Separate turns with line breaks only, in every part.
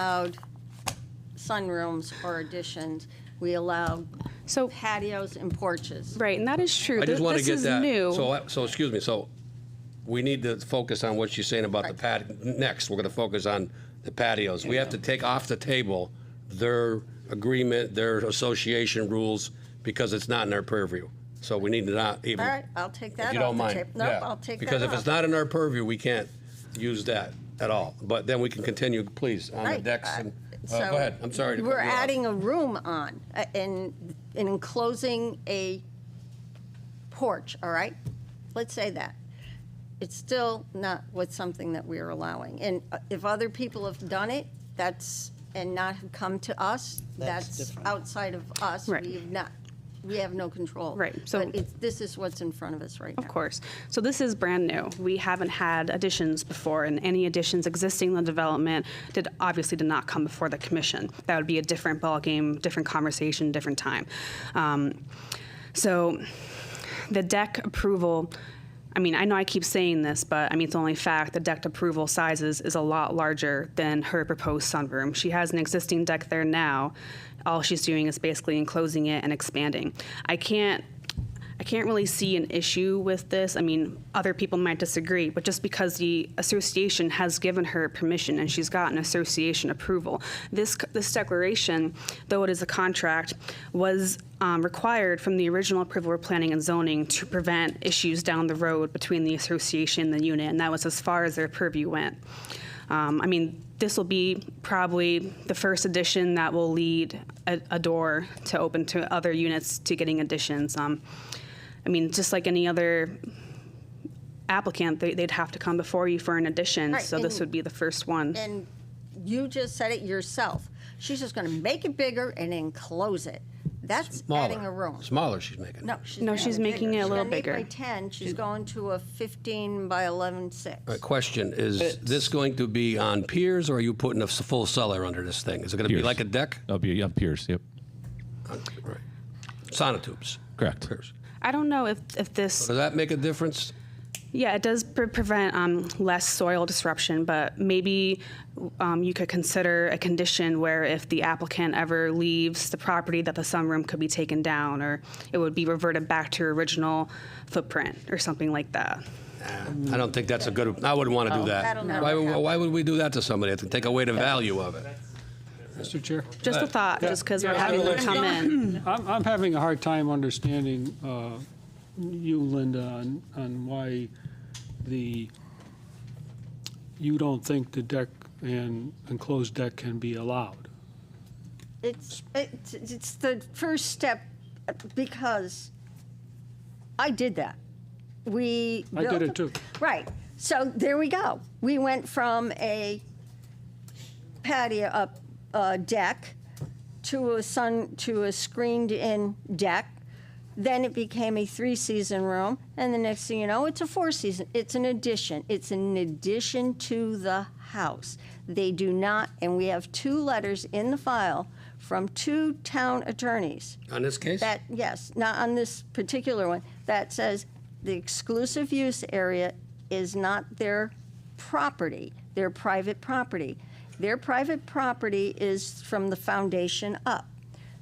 allowed sunrooms or additions. We allowed
So,
patios and porches.
right, and that is true.
I
Th-
just want to
this
get
is
that.
new.
So, I- so excuse me, so we need to focus on what she's saying about the patio. Next, we're going to focus on the patios. We have to take off the table their agreement, their association rules, because it's not in our purview. So we need to not even.
All right, I'll take that
If you
off
don't
the
mind.
table. Nope,
Yeah.
I'll take that
Because if
off.
it's not in our purview, we can't use that at all. But then we can continue, please, on the
Right.
decks
Uh,
and,
so
uh, go ahead, I'm sorry to cut
We're
you off.
adding a room on, uh, in, in enclosing a porch, all right? Let's say that. It's still not what's something that we're allowing. And uh, if other people have done it, that's, and not have come to us,
That's
that's
different.
outside of us.
Right.
We have not, we have no control.
Right, so-
But it's, this is what's in front of us right now.
Of course. So this is brand new. We haven't had additions before, and any additions existing in the development did obviously did not come before the commission. That would be a different ballgame, different conversation, different time. Um, so the deck approval. I mean, I know I keep saying this, but I mean, it's only fact. The deck approval sizes is a lot larger than her proposed sunroom. She has an existing deck there now. All she's doing is basically enclosing it and expanding. I can't I can't really see an issue with this. I mean, other people might disagree, but just because the association has given her permission and she's gotten association approval, this this declaration, though it is a contract, was um, required from the original approval of planning and zoning to prevent issues down the road between the association and the unit, and that was as far as their purview went. Um, I mean, this will be probably the first addition that will lead a, a door to open to other units to getting additions. Um, I mean, just like any other applicant, they, they'd have to come before you for an addition.
Right,
so this
and-
would be the first one.
and you just said it yourself. She's just going to make it bigger and then close it. That's adding a room.
Smaller she's making.
No, she's
No,
making
she's
it
making
bigger.
it a little
she's gonna
bigger.
Make by ten. She's going to a fifteen by eleven six.
My Uh, question, is this going to be on piers or are you putting a s- full cellar under this thing? Is it going to be
Piers.
like a deck? Uh,
That'll be yeah, Pierce. Yep,
Right. Sonotubes.
correct.
Piers.
I don't know if, if this,
Does that make a difference?
yeah, it does pre- prevent um, less soil disruption, but maybe um, you could consider a condition where if the applicant ever leaves the property, that the sunroom could be taken down or it would be reverted back to original footprint or something like that.
I don't think that's a good, I wouldn't want to do that.
Oh, That'll never
Why, would-
happen.
why would we do that to somebody? To take away the value of it? Mr. Chair?
Just a thought, just because we're
Yeah,
having them come in.
I'm, I'm having a hard time understanding uh, you, Linda, on, on why the, you don't think the deck and enclosed deck can be allowed.
It's, it's it's the first step uh, because I did that. We
I did
built
it
a-
too.
Right. So there we go. We went from a patio up uh, deck to a sun to a screened-in deck. Then it became a three-season room, and the next thing you know, it's a four-season. It's an addition. It's an addition to the house. They do not, and we have two letters in the file from two town attorneys
On this case?
that, yes, not on this particular one, that says the exclusive use area is not their property, their private property. Their private property is from the foundation up.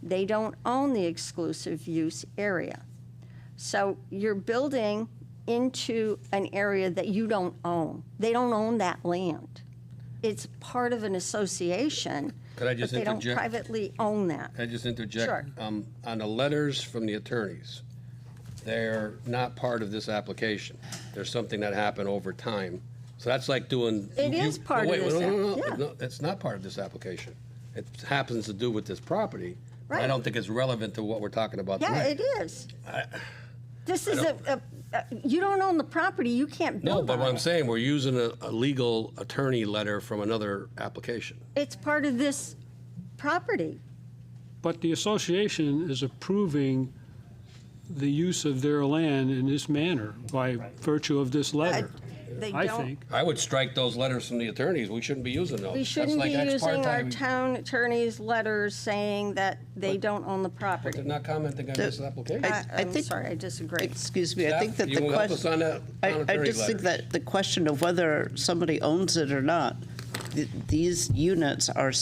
They don't own the exclusive use area. So you're building into an area that you don't own. They don't own that land. It's part of an association,
Could I
but
just
they don't
interject?
privately own that.
Can I just interject?
Sure.
Um, on the letters from the attorneys, they're not part of this application. There's something that happened over time. So that's like doing.
It
you-
is
no,
part of
wait,
this
No, no,
app-
no,
yeah.
no, it's not part of this application. It happens to do with this property. but I
Right.
don't think it's relevant to what we're talking about
Yeah,
tonight.
it is. This is a, a- a- you don't own the property, you can't
No,
build
but
on
what I'm
it.
saying, we're using a, a legal attorney letter from another application.
It's part of this property.
But the association is approving the use of their land in this manner by virtue of this letter,
They
I
don't-
think.
I would strike those letters from the attorneys. We shouldn't be using those.
We
That's
shouldn't be
like ex
using our
parte.
town attorney's letters saying that they don't own the
They're
property.
not commenting on this application.
I-
I
I'm
think-
sorry, I disagree.
Excuse me, I think that
Staff,
the
you help us on
question,
that
I, I
monetary
just think
letter.
that the question of whether somebody owns it or not, th- these units are